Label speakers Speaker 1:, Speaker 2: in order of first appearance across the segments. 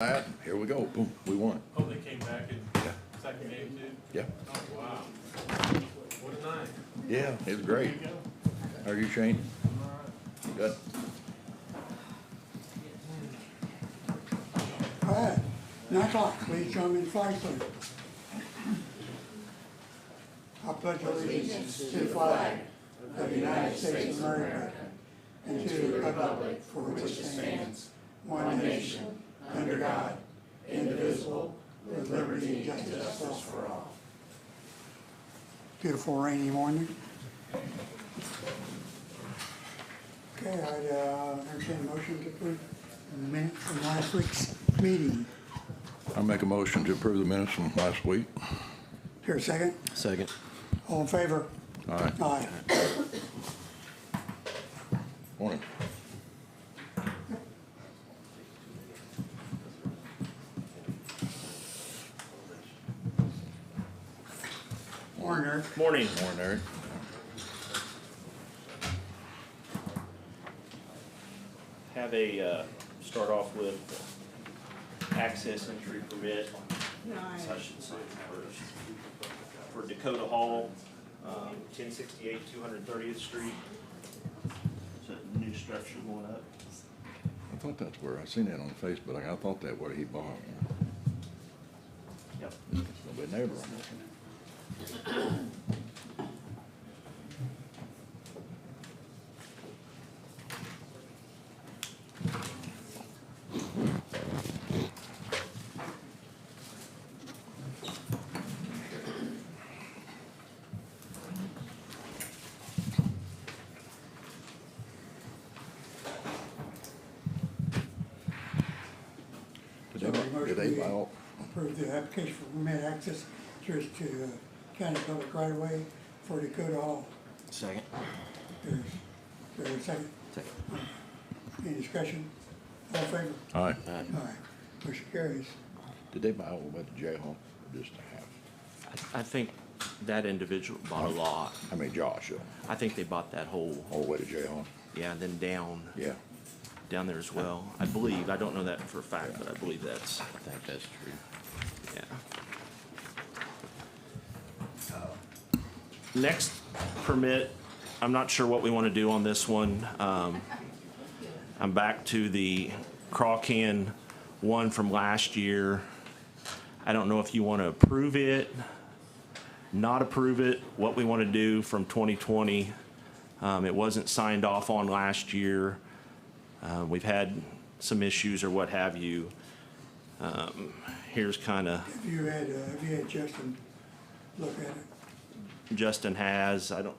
Speaker 1: yep, here we go, boom, we won.
Speaker 2: Oh, they came back in
Speaker 1: Yeah,
Speaker 2: second game too?
Speaker 1: yeah,
Speaker 2: Oh, wow. What a night.
Speaker 1: yeah, it was great. How are you, Shane? Good.
Speaker 3: All right, nine o'clock, please join me in flag salute. I pledge allegiance to the flag of the United States of America and to the republic for which it stands, one nation, under God, indivisible, with liberty and justice for all. Beautiful rainy morning. Okay, I, uh, entertain a motion to approve the minutes from last week's meeting.
Speaker 1: I'll make a motion to approve the minutes from last week.
Speaker 3: Here, a second?
Speaker 4: Second.
Speaker 3: All in favor?
Speaker 1: Aye.
Speaker 3: Aye.
Speaker 1: Morning.
Speaker 3: Warner,
Speaker 5: Morning.
Speaker 1: Morning, Eric.
Speaker 5: Have a, uh, start off with access entry permit, so I should sign first. For Dakota Hall, um, ten sixty-eight, two hundred thirtieth street. It's a new structure going up.
Speaker 1: I thought that's where, I seen that on Facebook, I thought that where he bought.
Speaker 5: Yep.
Speaker 1: It's gonna be a neighbor on this. Did they, buy- did they buy all,
Speaker 3: approve the application for permit access just to uh, county public right of way for Dakota Hall.
Speaker 4: Second.
Speaker 3: There's, there's a second,
Speaker 4: Second.
Speaker 3: any discussion? All in favor?
Speaker 1: aye,
Speaker 4: Aye.
Speaker 3: Aye. Motion carries.
Speaker 1: did they buy all the way to jail, or just a half?
Speaker 4: I, I think that individual bought a lot.
Speaker 1: I mean, Josh, uh,
Speaker 4: I think they bought that whole,
Speaker 1: all the way to jail,
Speaker 4: yeah, and then down,
Speaker 1: yeah.
Speaker 4: down there as well. I believe, I don't know that for a fact, but I believe that's,
Speaker 6: I think that's true.
Speaker 4: yeah.
Speaker 5: Next permit, I'm not sure what we want to do on this one. Um, I'm back to the craw can one from last year. I don't know if you want to approve it, not approve it, what we want to do from 2020. Um, It wasn't signed off on last year. Uh, We've had some issues or what have you. Um, Here's kind of
Speaker 3: Have you had, uh, have you had Justin look at it?
Speaker 5: Justin has, I don't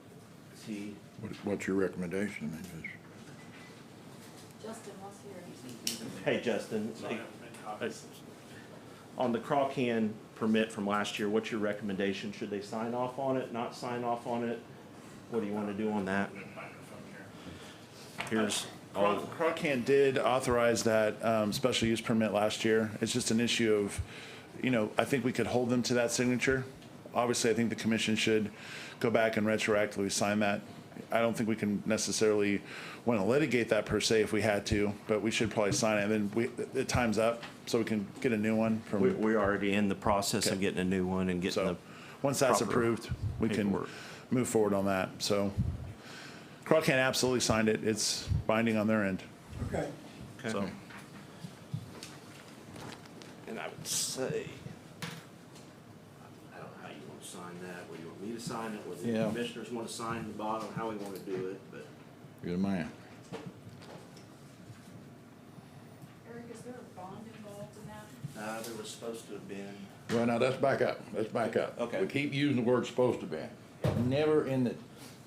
Speaker 5: see.
Speaker 1: What, what's your recommendation? I mean, just-
Speaker 7: Justin was here.
Speaker 5: Hey, Justin, on the Crawcan permit from last year, what's your recommendation? Should they sign off on it, not sign off on it? What do you want to do on that? Here's, all-
Speaker 8: Crocan did authorize that um, special use permit last year. It's just an issue of, you know, I think we could hold them to that signature. Obviously, I think the commission should go back and retroactively sign that. I don't think we can necessarily want to litigate that per se if we had to, but we should probably sign it. And then we, it time's up, so we can get a new one
Speaker 5: we-
Speaker 8: from,
Speaker 5: we're already in the process of
Speaker 8: Okay.
Speaker 5: getting a new one and getting
Speaker 8: so,
Speaker 5: the,
Speaker 8: once that's
Speaker 5: proper
Speaker 8: approved, we can
Speaker 5: paperwork.
Speaker 8: move forward on that. So Crocan absolutely signed it. It's binding on their end.
Speaker 3: Okay,
Speaker 5: so.
Speaker 8: So-
Speaker 5: And I would say, I don't know how you want to sign that, whether you want me to sign it, whether
Speaker 1: Yeah.
Speaker 5: the commissioners want to sign the bottom, how we want to do it, but.
Speaker 1: You're the man.
Speaker 7: Eric, is there a bond involved in that?
Speaker 5: Uh, there was supposed to have been.
Speaker 1: Well, now, let's back up, let's back up.
Speaker 5: Okay.
Speaker 1: We keep using the word supposed to be. Never in the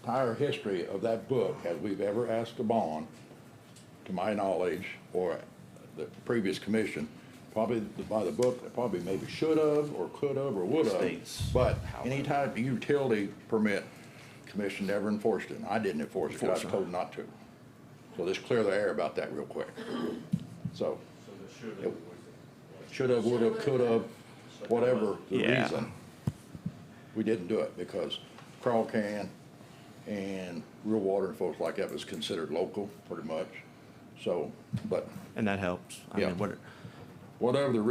Speaker 1: entire history of that book have we've ever asked a bond, to my knowledge, or the previous commission, probably by the book, they probably maybe should have, or could have, or would have.
Speaker 5: States.
Speaker 1: But any type of utility permit, commission never enforced it, and I didn't enforce it, 'cause I was told not to. So let's clear the air about that real quick. So, should have, would have, could have, whatever the
Speaker 5: Yeah.
Speaker 1: reason. We didn't do it because crawl can and real water and folks like that was considered local pretty much. So, but
Speaker 5: And that helps. I
Speaker 1: Yeah.
Speaker 5: mean, what,
Speaker 1: whatever the